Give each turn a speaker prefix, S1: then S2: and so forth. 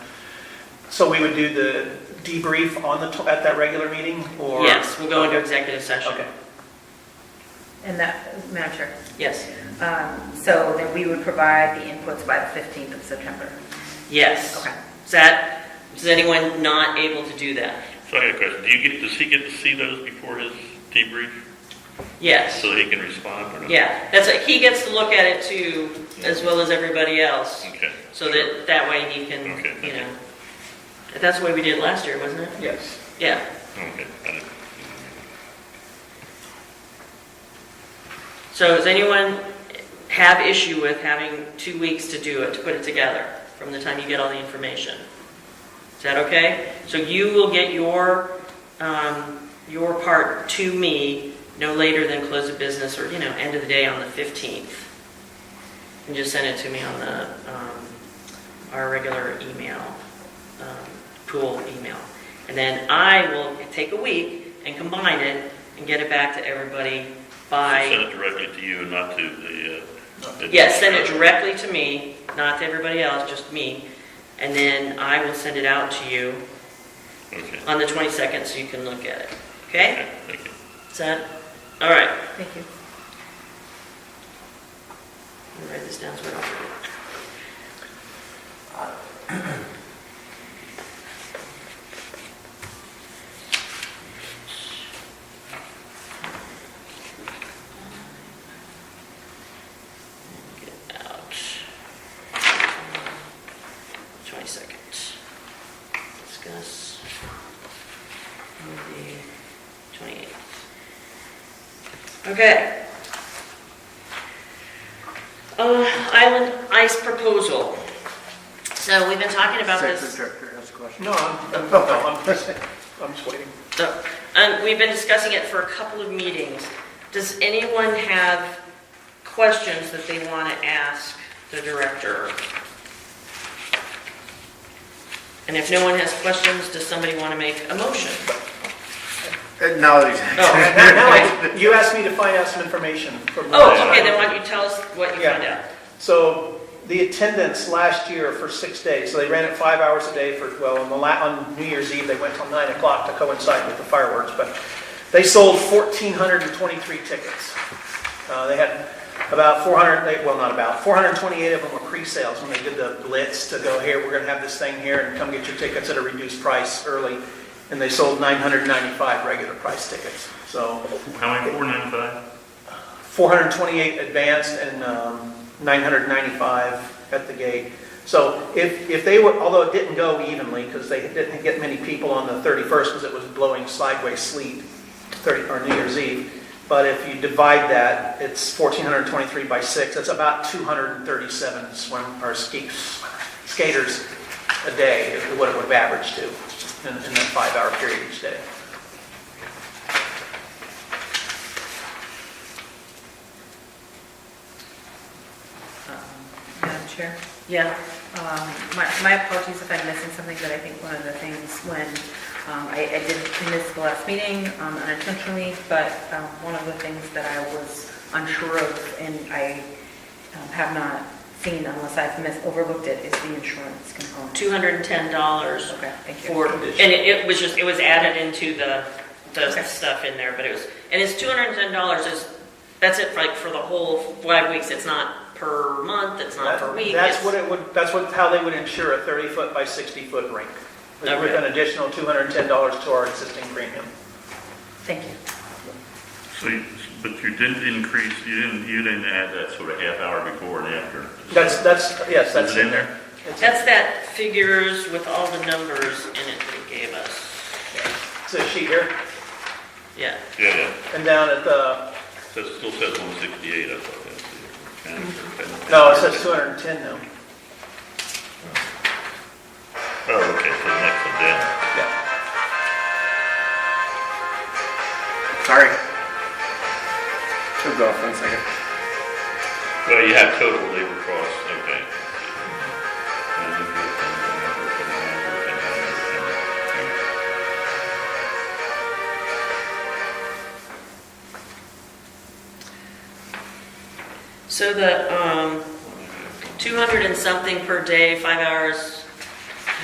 S1: So we would do the debrief on the, tw- at that regular meeting, or?
S2: Yes, we'll go into executive session.
S1: Okay,
S3: And that, Madam Chair,
S2: Yes,
S3: um, so then we would provide the inputs by the 15th of September.
S2: yes.
S3: Okay.
S2: Is that, is anyone not able to do that?
S4: So I got a question. Do you get, does he get to see those before his debrief
S2: Yes,
S4: so that he can respond or not?
S2: yeah, that's, it. he gets to look at it too, as well as everybody else,
S4: Okay.
S2: so that, that way he can,
S4: Okay,
S2: you
S4: okay.
S2: know. That's the way we did it last year, wasn't it?
S1: yes.
S2: Yeah,
S4: Okay. got it.
S2: so does anyone have issue with having two weeks to do it, to put it together, from the time you get all the information? Is that okay? So you will get your, um, your part to me no later than close of business, or, you know, end of the day on the 15th. And just send it to me on the, um, our regular email, um, pool email. And then I will take a week and combine it and get it back to everybody by...
S4: Send it directly to you and not to the. uh, the-
S2: Yes, send it directly to me, not to everybody else, just me. And then I will send it out to you
S4: Okay.
S2: on the 22nd so you can look at it.
S4: Okay,
S2: Okay?
S4: thank you.
S2: Is that, all right.
S3: Thank you.
S2: Let me write this down so I don't forget. Get it out. 20 seconds. Discuss. on the 28th. Okay. Uh, Island ice proposal. So we've been talking about this,
S5: Director has a question.
S1: No, I'm, I'm- no, I'm just, I'm just waiting.
S2: uh, and we've been discussing it for a couple of meetings. Does anyone have questions that they want to ask the director? And if no one has questions, does somebody want to make a motion?
S5: Uh, No, exactly.
S2: Oh,
S1: Now, You asked me to find out some information from.
S2: Oh, okay, then why don't you tell us what you
S1: Yeah.
S2: found out?
S1: So the attendance last year for six days, so they ran it five hours a day for, well, on the la, on New Year's Eve, they went till nine o'clock to coincide with the fireworks, but they sold fourteen hundred and twenty-three tickets. Uh, they had about four hundred, they, well, not about, four hundred and twenty-eight of them were pre-sales when they did the blitz to go here, we're gonna have this thing here and come get your tickets at a reduced price early. And they sold nine hundred and ninety-five regular price tickets, so.
S4: How many, four ninety-five?
S1: 428 advanced and um, 995 at the gate. So if, if they were, although it didn't go evenly, because they didn't get many people on the 31st, because it was blowing sideways sleet, 30, or New Year's Eve, but if you divide that, it's 1,423 by 6, that's about 237 swim, or ski, skaters a day, is what it would have averaged to, in in that five-hour period each day.
S3: Um, Madam Chair,
S2: Yeah,
S3: um, my my apologies if I'm missing something, but I think one of the things when, um, I I did miss the last meeting um, unintentionally, but um, one of the things that I was unsure of, and I um, have not seen unless I've missed, overlooked it, is the insurance component.
S2: $210.
S3: Okay, thank you.
S2: for, and it it was just, it was added into the, the
S3: Okay.
S2: stuff in there, but it was, and it's two hundred and ten dollars is, that's it, for, like, for the whole five weeks, it's not per month, it's not per
S1: That-
S2: week.
S1: That's
S2: it's-
S1: what it would, that's what, how they would insure a 30-foot by 60-foot rink. With
S2: Okay.
S1: an additional $210 to our existing premium.
S3: Thank you.
S4: So, you- but you didn't increase, you didn't, you didn't add that sort of half hour before and after.
S1: That's, that's, yes, that's
S4: Is it
S1: in there. It's a-
S2: That's that figures with all the numbers in it that it gave us,
S1: It's a sheet here,
S2: yeah.
S4: Yeah, yeah.
S1: and down at the,
S4: Says, still says one sixty-eight, I thought
S2: Mm-hmm.
S4: that's. the-
S1: no, it says 210 now.
S4: Oh, okay, so the next one down.
S1: Yeah.
S2: Oh.
S5: Sorry. Should go off one second.
S4: Well, you have total labor costs, okay.
S2: So the, um, two hundred and something per day, five hours